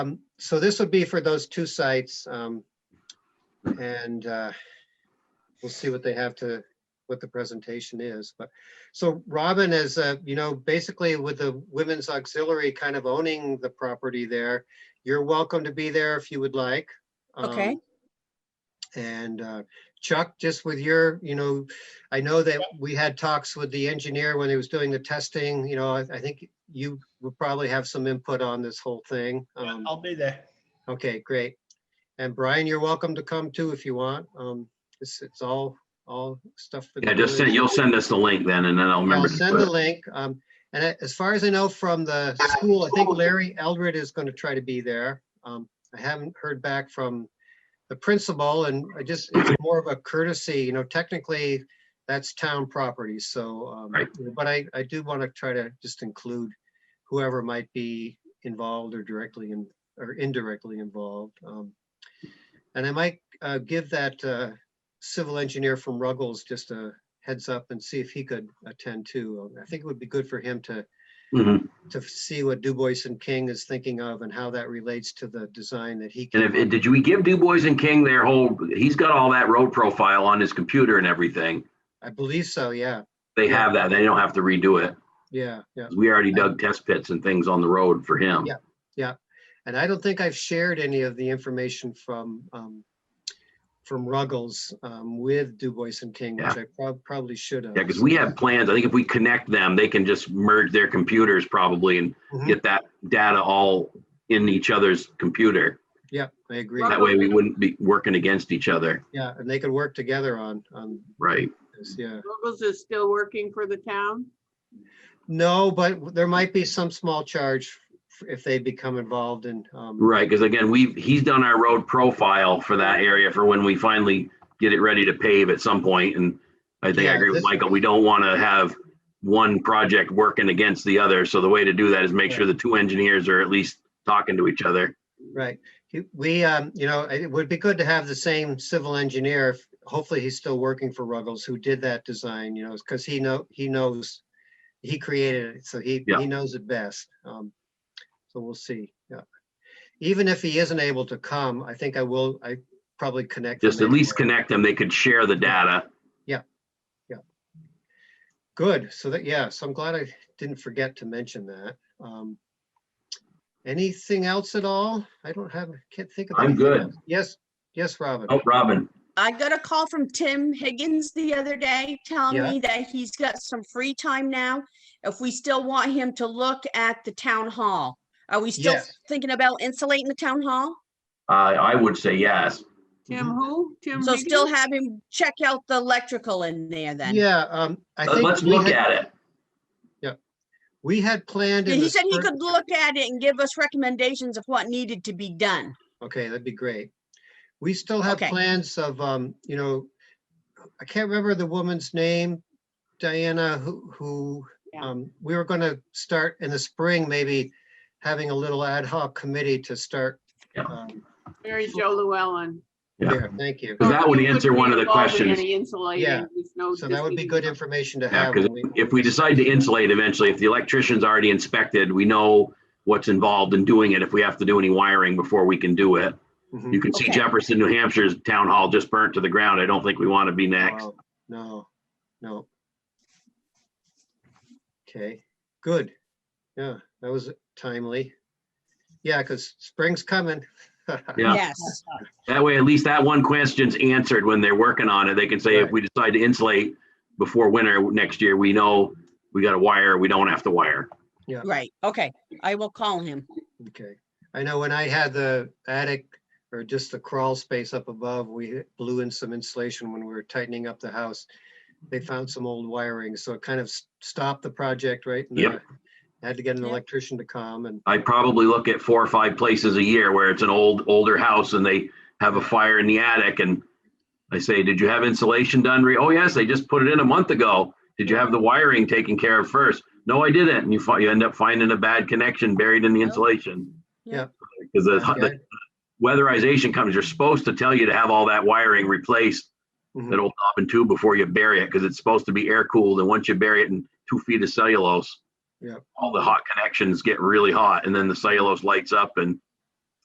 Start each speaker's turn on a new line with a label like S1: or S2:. S1: Um, so this would be for those two sites. Um, and, uh, we'll see what they have to, what the presentation is, but, so Robin is, uh, you know, basically with the Women's Auxiliary kind of owning the property there, you're welcome to be there if you would like.
S2: Okay.
S1: Um, And, uh, Chuck, just with your, you know, I know that we had talks with the engineer when he was doing the testing, you know, I, I think you will probably have some input on this whole thing.
S3: Yeah,
S1: Um,
S3: I'll be there.
S1: Okay, great. And Brian, you're welcome to come too if you want. Um, it's, it's all, all stuff. for the
S4: Yeah, just send,
S1: village.
S4: you'll send us the link then and then I'll
S1: I'll
S4: remember. to
S1: send
S4: put
S1: the
S4: it.
S1: link. Um, and I- as far as I know from the school, I think Larry Eldred is going to try to be there. Um, I haven't heard back from the principal and I just, it's more of a courtesy, you know, technically that's town property, so, um,
S4: Right.
S1: but I, I do want to try to just include whoever might be involved or directly and, or indirectly involved. Um, And I might, uh, give that, uh, civil engineer from Ruggles just a heads up and see if he could attend too. I think it would be good for him to,
S4: Mhm.
S1: to see what Du Bois and King is thinking of and how that relates to the design that he.
S4: And if,
S1: came up
S4: did we give Du Bois and King their whole, he's got all that road profile on his computer and everything.
S1: I believe so, yeah,
S4: They have that. They don't have to redo it.
S1: yeah, yeah,
S4: We already dug test pits and things on the road for him.
S1: Yeah. yeah. And I don't think I've shared any of the information from, um, from Ruggles, um, with Du Bois and King, which I prob- probably should have.
S4: Yeah, because we have plans. I think if we connect them, they can just merge their computers probably and
S1: Mhm.
S4: get that data all in each other's computer.
S1: Yeah, I agree.
S4: That way we wouldn't be working against each other.
S1: Yeah, and they could work together on, on
S4: Right.
S1: this, yeah.
S5: Ruggles is still working for the town?
S1: No, but there might be some small charge if they become involved in, um,
S4: Right, because again, we've, he's done our road profile for that area for when we finally get it ready to pave at some point, and I think I
S1: Yeah,
S4: agree with
S1: this-
S4: Michael, we don't want to have one project working against the other, so the way to do that is make sure the two engineers are at least talking to each other.
S1: Right. He- We, um, you know, it would be good to have the same civil engineer. if- Hopefully he's still working for Ruggles who did that design, you know, because he know, he knows, he created it, so he,
S4: Yeah.
S1: he knows it best. Um, So we'll see. Yeah. Even if he isn't able to come, I think I will, I probably connect.
S4: Just
S1: them
S4: at least
S1: anyway.
S4: connect them, they could share the data.
S1: Good. So that, yeah, so I'm glad I didn't forget to mention that. Um, Anything else at all? I don't have, can't think of.
S4: I'm
S1: anything
S4: good.
S1: else. Yes, yes, Robin.
S4: Oh, Robin,
S2: I got a call from Tim Higgins the other day telling
S1: Yeah.
S2: me that he's got some free time now. If we still want him to look at the town hall, are we still
S1: Yes.
S2: thinking about insulating the town hall?
S4: I, I would say yes.
S5: Tim
S1: Mm-hmm.
S5: who? Tim
S2: So still
S5: Higgins?
S2: have him check out the electrical in there then?
S1: Yeah, um, I think.
S4: Uh, Let's
S1: we
S4: look
S1: had-
S4: at it.
S1: We had planned.
S2: Yeah,
S1: in
S2: He
S1: the
S2: said he
S1: spring-
S2: could look at it and give us recommendations of what needed to be done.
S1: Okay, that'd be great. We still have
S2: Okay.
S1: plans of, um, you know, I can't remember the woman's name, Diana, who, who,
S5: Yeah.
S1: um, we were gonna start in the spring, maybe having a little ad hoc committee to start.
S4: Yeah.
S1: um,
S5: Mary Jo Llewellyn.
S4: Yeah.
S1: there, Thank you.
S4: Because that would
S5: He wouldn't
S4: answer one of the
S5: be involved in
S4: questions.
S5: Any
S1: Yeah.
S5: insulating. there's no-
S1: So that would be good information to
S4: Yeah,
S1: have.
S4: because
S1: when we-
S4: if we decide to insulate eventually, if the electrician's already inspected, we know what's involved in doing it, if we have to do any wiring before we can do it.
S1: Mhm.
S4: You can see
S2: Okay.
S4: Jefferson, New Hampshire's town hall just burnt to the ground. I don't think we want to be next.
S1: Wow, No, no. Okay, good. Yeah, that was timely. Yeah, because spring's coming.
S4: Yeah.
S2: Yes.
S4: That way, at least that one question's answered when they're working on it. They can say, if
S1: Right.
S4: we decide to insulate before winter next year, we know we got to wire, we don't have to wire.
S2: Right, okay. I will call him.
S1: Okay. I know when I had the attic or just the crawl space up above, we blew in some insulation when we were tightening up the house. They found some old wiring, so it kind of s- stopped the project, right? And
S4: Yep.
S1: then I Had to get an
S2: Yep.
S1: electrician to come and,
S4: I probably look at four or five places a year where it's an old, older house and they have a fire in the attic and I say, did you have insulation done? Re- Oh, yes, they just put it in a month ago. Did you have the wiring taken care of first? No, I didn't. And you find, you end up finding a bad connection buried in the insulation.
S2: Yeah.
S4: Because the,
S1: Okay.
S4: the weatherization comes, you're supposed to tell you to have all that wiring replaced,
S1: Mhm.
S4: that old knob and tube before you bury it, because it's supposed to be air cooled. And once you bury it in two feet of cellulose,
S1: Yep.
S4: all the hot connections get really hot and then the cellulose lights up and